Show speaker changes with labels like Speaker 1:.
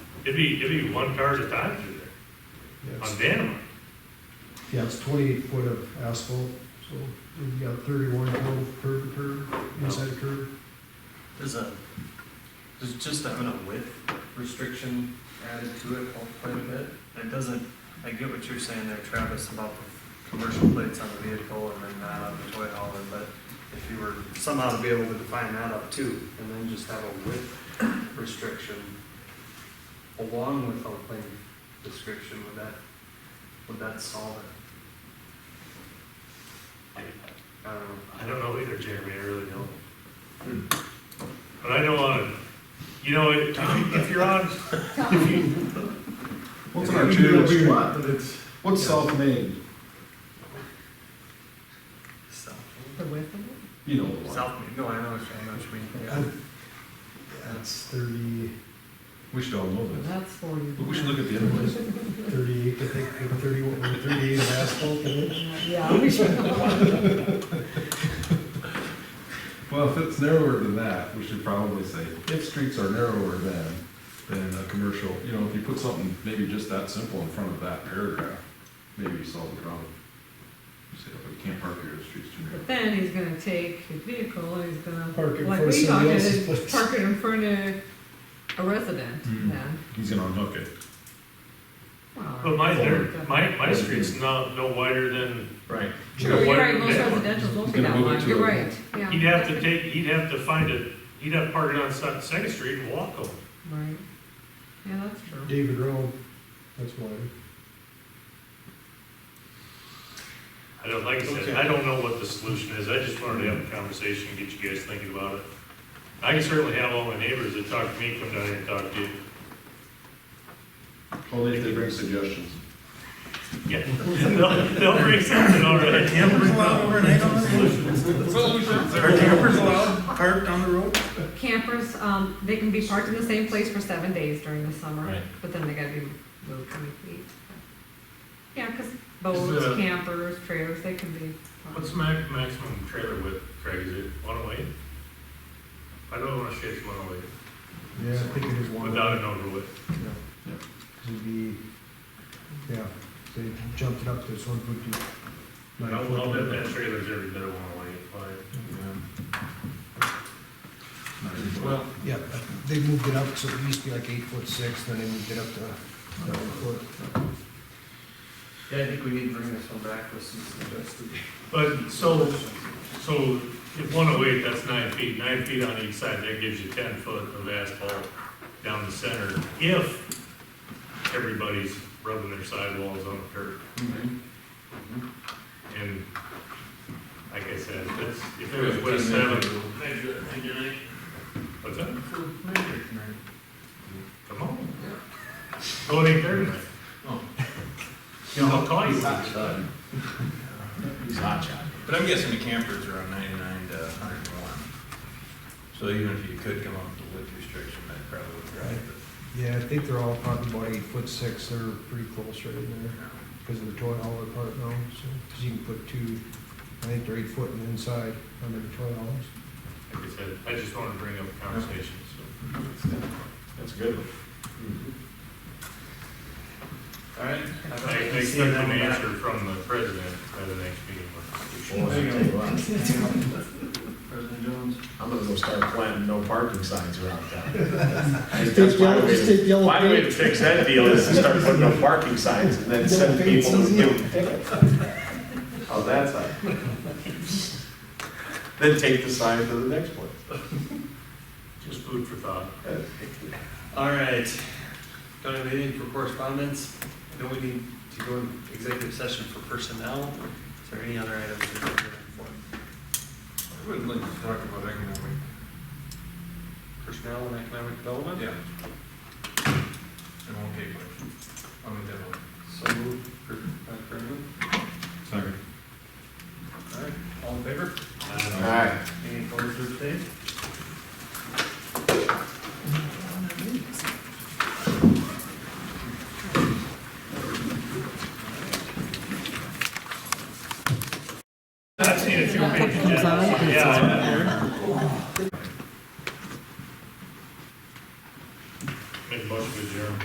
Speaker 1: It'd be, it'd be one car at a time through there, on
Speaker 2: Yes.
Speaker 1: Vanamar.
Speaker 2: Yeah, it's twenty-eight foot of asphalt, so we've got thirty-one total curb to curb, inside curb.
Speaker 3: There's a, there's just having a width restriction added to it quite a bit. It doesn't, I get what you're saying there, Travis, about the commercial plates on the vehicle and then that on the toy hauler, but if you were somehow to be able to define that up too, and then just have a width restriction along with a lane description, would that, would that solve it? I don't know.
Speaker 1: I don't know either, Jeremy, I really don't. But I know on, you know, if you- if you're on, if you,
Speaker 4: Well, it's
Speaker 2: Yeah,
Speaker 4: an
Speaker 2: we do
Speaker 4: arterial
Speaker 2: what we
Speaker 4: street.
Speaker 2: want, But it's,
Speaker 4: What's
Speaker 3: Yeah.
Speaker 4: South Main?
Speaker 3: So,
Speaker 5: The width of it?
Speaker 4: You know the one.
Speaker 3: South, no, I know what you I know what you mean. yeah.
Speaker 2: I- Uh, that's thirty,
Speaker 4: We should all know this.
Speaker 5: That's for you.
Speaker 4: But we should look at the other ones.
Speaker 2: thirty-eight, I think, or thirty-one, or thirty-eight of asphalt in it.
Speaker 5: Yeah, we should.
Speaker 4: Well, if it's narrower than that, we should probably say, if streets are narrower than, than a commercial, you know, if you put something maybe just that simple in front of that paragraph, maybe you solve the problem. You say, "Oh, you can't park here, the street's too narrow.
Speaker 5: But then he's gonna take his vehicle and he's gonna.
Speaker 2: Park it in
Speaker 5: like
Speaker 2: front of somebody
Speaker 5: we talked,
Speaker 2: else's
Speaker 5: is
Speaker 2: place.
Speaker 5: Park it in front of a resident
Speaker 4: Hmm.
Speaker 5: then.
Speaker 4: He's gonna unhook it.
Speaker 5: Well,
Speaker 1: but my, there-
Speaker 5: that's-
Speaker 1: my, my street's not, no wider than
Speaker 4: Right.
Speaker 5: True, you're right, most
Speaker 1: Yeah.
Speaker 5: residential's won't be
Speaker 4: Gonna
Speaker 5: that
Speaker 4: move it
Speaker 5: wide,
Speaker 4: to
Speaker 5: you're
Speaker 4: a-
Speaker 5: right, yeah.
Speaker 1: He'd have to take, he'd have to find a, he'd have to park it on Se- Second Street and walk home.
Speaker 5: Right, yeah, that's true.
Speaker 2: David Rome, that's one.
Speaker 1: I don't, like I
Speaker 2: Okay.
Speaker 1: said, I don't know what the solution is, I just wanted to have a conversation, get you guys thinking about it. I can certainly have all my neighbors that talk to me come down here and talk to you.
Speaker 4: Only if they bring suggestions.
Speaker 1: Yeah, they'll, they'll bring something already.
Speaker 6: Campers allowed overnight on the road? Are campers allowed parked on the road?
Speaker 5: Campers, um, they can be parked in the same place for seven days during the summer,
Speaker 6: Right.
Speaker 5: but then they gotta be moved twenty feet. Yeah, cause
Speaker 1: Is, uh,
Speaker 5: boats, campers, trailers, they can be. parked.
Speaker 1: What's the max, maximum trailer width, Craig, is it one oh eight? I don't wanna say it's one oh eight,
Speaker 2: Yeah, I think it is one. oh
Speaker 1: without an overlay.
Speaker 2: Yeah. It'd be, yeah, they jumped it up to, this one would be. nine
Speaker 1: I'll,
Speaker 2: foot.
Speaker 1: I'll bet that trailer's every bit of one oh eight, but
Speaker 4: Well,
Speaker 2: Yeah, they moved it up, so it used to be like eight foot six, then they moved it up to nine foot.
Speaker 3: Yeah, I think we need to bring this one back with some suggested.
Speaker 1: But, so, so if one oh eight, that's nine feet, nine feet on each side, that gives you ten foot of asphalt down the center, if everybody's rubbing their sidewalls on the curb. And like I said, that's, if it was west seven. What's that? Come on. Go eight thirty. You know, I'll call you.
Speaker 6: But I'm guessing the campers are on ninety-nine to hundred and one. So even if you could come up with a width restriction, that probably would drive it.
Speaker 2: Yeah, I think they're all probably about eight foot six, they're pretty close right in there, because of the toy hauler part now, so, because you can put two, I think they're eight foot on the inside on their toy haulers.
Speaker 1: Like I said, I just wanted to bring up a conversation, so.
Speaker 4: that's good.
Speaker 3: All right.
Speaker 1: I I expect an answer from the president by the next meeting.
Speaker 3: President Jones.
Speaker 7: I'm gonna go start planting no parking signs around town. Just
Speaker 2: take yellow- just take yellow
Speaker 7: My way to fix that deal is to start putting no parking signs and then send people to give them tickets. How's that sound? Then take the sign to the next place.
Speaker 1: Just food for thought.
Speaker 3: All right. Don't have anything for correspondence. Then we need to go in executive session for personnel. Is there any other items? we're looking for?
Speaker 6: I would like to talk about economic.
Speaker 3: Personnel and economic development?
Speaker 6: Yeah. I'm okay with it. I'll make that one.
Speaker 3: So moved. Per- uh, per move.
Speaker 4: Sorry.
Speaker 3: All right, all in favor?
Speaker 7: All right.
Speaker 3: Any opposed or abstained?
Speaker 1: I've seen a few pages.
Speaker 5: Comes out.
Speaker 1: Yeah, I know.